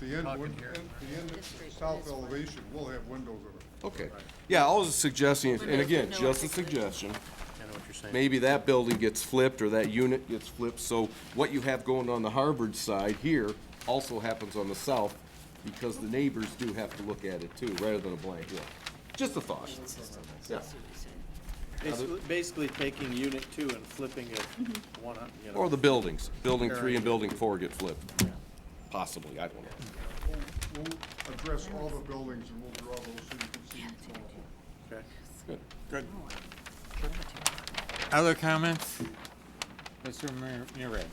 the end, Talking win- here. end- the end, This street, south this one. elevation will have windows in it. Okay, yeah, I was suggesting, is- and Windows again, with no just a articulation. suggestion, I know what you're saying. maybe that building gets flipped or that unit gets flipped, so what you have going on the Harvard side here also happens on the south, because the neighbors do have to look at it too, rather than a blank wall. Just a thought. Yeah. Basically- Basically taking unit two and flipping it one up, you know. Or the buildings, building three and building four get flipped, possibly, I don't know. We'll, we'll address all the buildings and we'll draw those so you can see each one. Okay. Good. Other comments? Mr. Mur- Murray?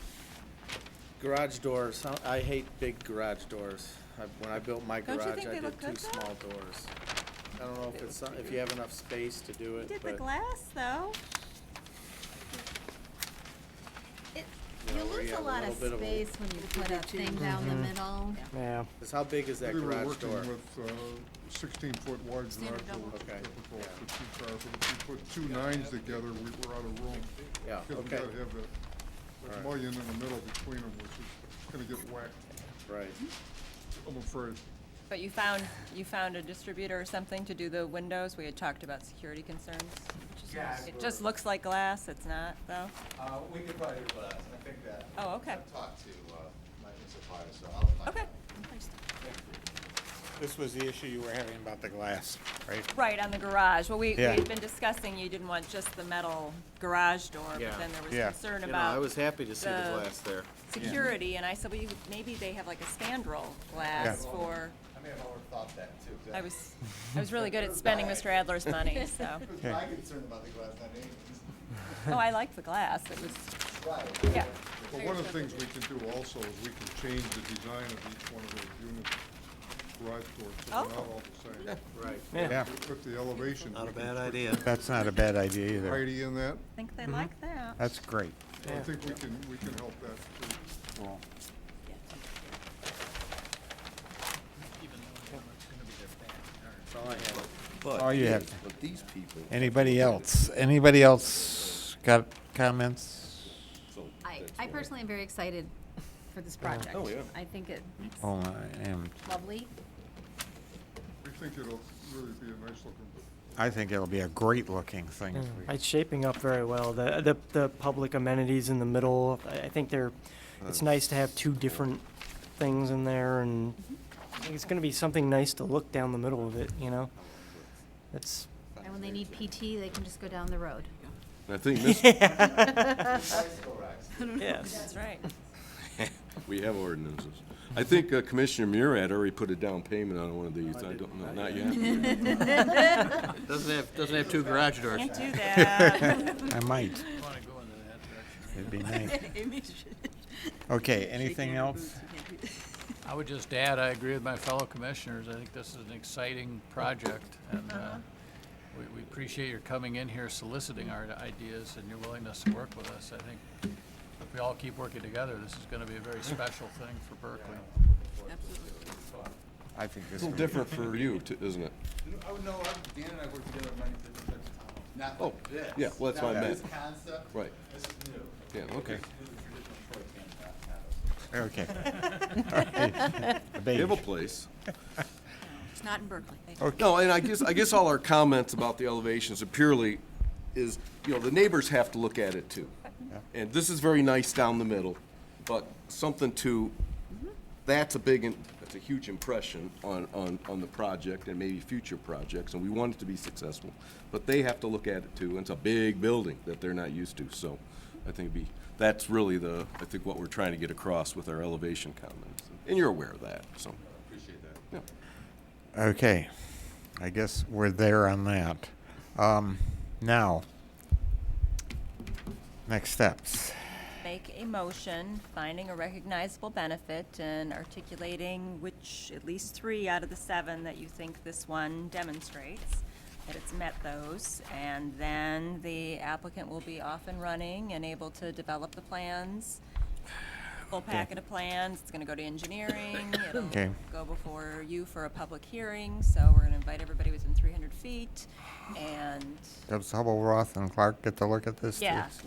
Garage doors, huh, I hate big garage doors. I- When I built my Don't you garage, think I they did look two good, though? small doors. I don't know if it's, some- if you have enough space to do it, Did the but, glass though? It, you you know, we lose a have a lot little of bit of a. space when you put a thing down the middle. Yeah. 'cause how big is that We were garage working door? with, uh, sixteen foot wide garage Standard double. doors. Okay. typical for two cars, but if you put two nines together, we were out of room. Yeah, Cause we Oh, okay. gotta have that mullion in the middle between them, which is gonna get whacked, Right. I'm afraid. But you found, you found a distributor or something to do the windows? We had talked about security concerns. Yeah. It just looks like glass, it's not, though? Uh, we could probably do glass, I think that. Oh, okay. I've talked to, uh, my supplier, so I'll find Okay, out. This was the issue you were having about the glass, right? right, on the garage. Well, we, we Yeah. had been discussing you didn't want just the metal garage door, but Yeah. then there was Yeah. concern You know, I about was happy to see the the- glass there. security, and I said, well, you, maybe they have like a spandrel glass Yeah. for, I may have overthought that too, 'cause I was, I was really good at spending Mr. Adler's money, so. It was my concern about the glass, not anyone's. Oh, I liked the glass, it was, Right. yeah. But one of the things we can do also is we can change the design of each one of those units, garage doors, so they're not Oh. all the same. Right. Yeah, We Put the elevation. Not a we can bad put idea. that's not a bad idea either. Variety in that, I think they like that. That's great. I think we can, we can help that too. All you have. But these people, Anybody else? Anybody else got comments? so. I, that's I why. personally am very excited for this project. Oh, yeah. I think it's Hold on, I am- lovely. We think it'll really be a nice looking I think it'll be a great looking thing. if Mm. we- It's shaping up very well. The, the, the public amenities in the middle, I, I think they're, it's nice to have two different things in there and I think it's gonna be something nice to look down the middle of it, you know? It's, And when they need PT, they can just go down the road. I think this, yes. That's right. We have ordinances. I think uh, Commissioner Murad already put a down payment on one of these. I don't know, not yet. Doesn't have, doesn't have two garage doors. Can't do that. I might. It'd be nice. Okay, anything else? I would just add, I agree with my fellow commissioners. I think this is an exciting project, and uh, we we appreciate your coming in here soliciting our ideas and your willingness to work with us. I think if we all keep working together, this is going to be a very special thing for Berkeley. I think this It's a little different for you, too, isn't it? Oh, no, I- Dan and I worked together on many different types of tunnels, not Oh, like this. yeah, well, that's not what I like This meant. concept. Right. This is new. Yeah, okay. This is a traditional short can path pattern. Okay. All right. You have a Beige. place. It's not in Berkeley. No, and I guess, I guess all our comments about the elevations are purely is, you know, the neighbors have to look at it too. And this is very nice down the middle, but something to, that's a big, im- that's a huge impression on, on, on the project and maybe future projects, and we want it to be successful. But they have to look at it too, and it's a big building that they're not used to, so I think it'd be, that's really the, I think what we're trying to get across with our elevation comments. And you're aware of that, so. Appreciate that. Yeah. Okay, I guess we're there on that. Um, now, next steps. Make a motion, finding a recognizable benefit and articulating which, at least three out of the seven that you think this one demonstrates, that it's met those, and then the applicant will be off and running and able to develop the plans. Full packet of plans, it's gonna go to engineering, it'll Okay. go before you for a public hearing, so we're gonna invite everybody within three hundred feet, and, Does Hubble Roth and Clark get to look at this? too? yeah,